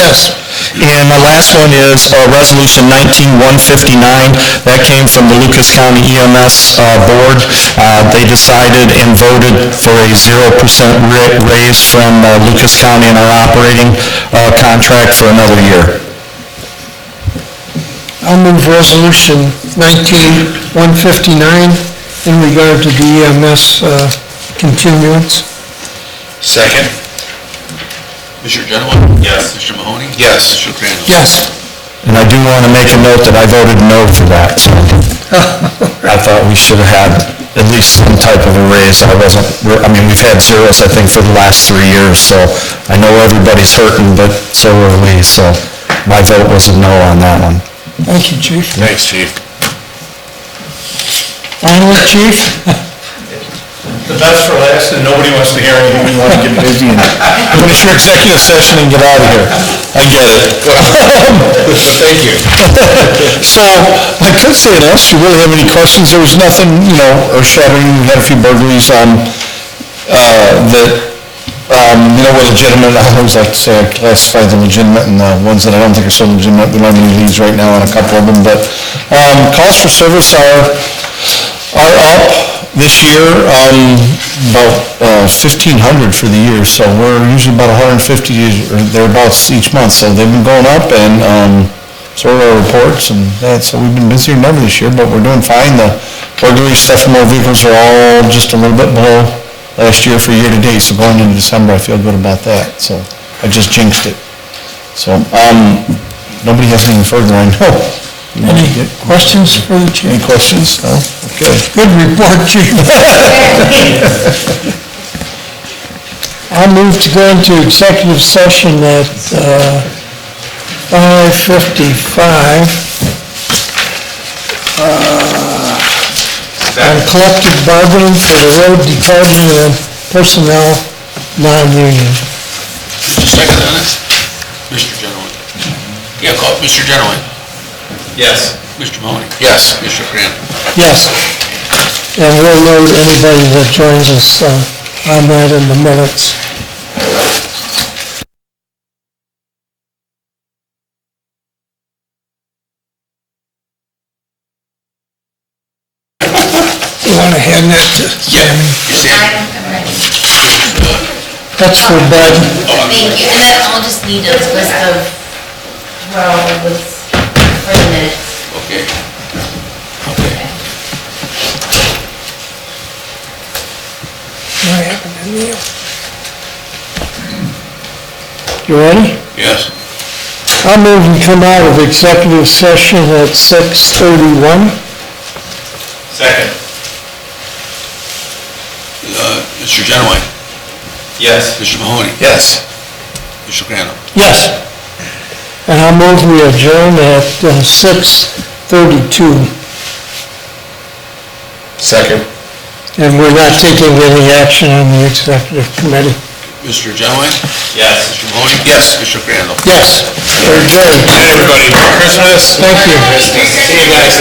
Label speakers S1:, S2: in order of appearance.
S1: Yes.
S2: And my last one is uh, Resolution 19159. That came from the Lucas County EMS uh, Board. Uh, They decided and voted for a 0% ra- raise from uh, Lucas County in our operating uh, contract for another year.
S1: I'll move Resolution 19-159 in regard to the EMS uh, continuance.
S3: Second?
S4: Mr. Genoway?
S3: Yes.
S4: Mr. Mahoney?
S3: Yes.
S4: Mr. Crandall?
S1: Yes.
S2: And I do want to make a note that I voted no for that. I thought we should have had at least some type of a raise. I wasn't, I mean, we've had zeros, I think, for the last three years, so I know everybody's hurting, but so are we, so my vote was a no on that one.
S1: Thank you, Chief.
S3: Thanks, chief.
S1: Finally, Chief?
S3: The best for last, and nobody wants to hear anything. We want to get busy and finish your executive session and get out of here. I get it. Thank you. So, I could say it, unless you really have any questions, there was nothing, you know, earth-shattering. We had a few burglaries, um, uh, that, um, you know, were legitimate. I always like to say I classify them legitimate, and the ones that I don't think are so legitimate, we don't have any leads right now on a couple of them, but, um, calls for service are, are up this year, um, about uh, fifteen hundred for the year, so we're usually about hundred and fifty or thereabouts each month, so they've been going up and, um, sort of our reports and that, so we've been busier than ever this year, but we're doing fine. The burglary stuff from our vehicles are all just a little bit below last year for year-to-date, so going into December, I feel good about that, so I just jinxed it. So, um, nobody has anything further, I know.
S1: Any questions for the
S3: Any
S1: chief?
S3: questions? No? Okay.
S1: Good report, Chief. I'll move to go into executive session at uh, 5:55 Uh, on collective bargaining for the road department and personnel non-union.
S4: Just a second on this. Mr. Genoway? Yeah, call, Mr. Genoway?
S3: Yes.
S4: Mr. Mahoney?
S3: Yes.
S4: Mr. Crandall?
S1: Yes. And we'll note anybody that joins us uh, on that in the minutes. You want to hand that to Sammy? That's for Bud.
S5: Thank you, and then I'll just need a list of, well, what's for the minutes.
S4: Okay.
S1: What happened to Neil? You ready?
S4: Yes.
S1: I'll move and come out of executive session at 6:31.
S3: Second.
S4: Uh, Mr. Genoway?
S3: Yes.
S4: Mr. Mahoney?
S3: Yes.
S4: Mr. Crandall?
S1: Yes. And I'll move we adjourn at uh, 6:32,
S3: Second.
S1: and we're not taking any action on the executive committee.
S4: Mr. Genoway?
S3: Yes.
S4: Mr. Mahoney?
S3: Yes.
S4: Mr. Crandall?
S1: Yes, we're adjourned.
S3: Everybody, Merry Christmas.
S1: Thank you.
S3: See you guys.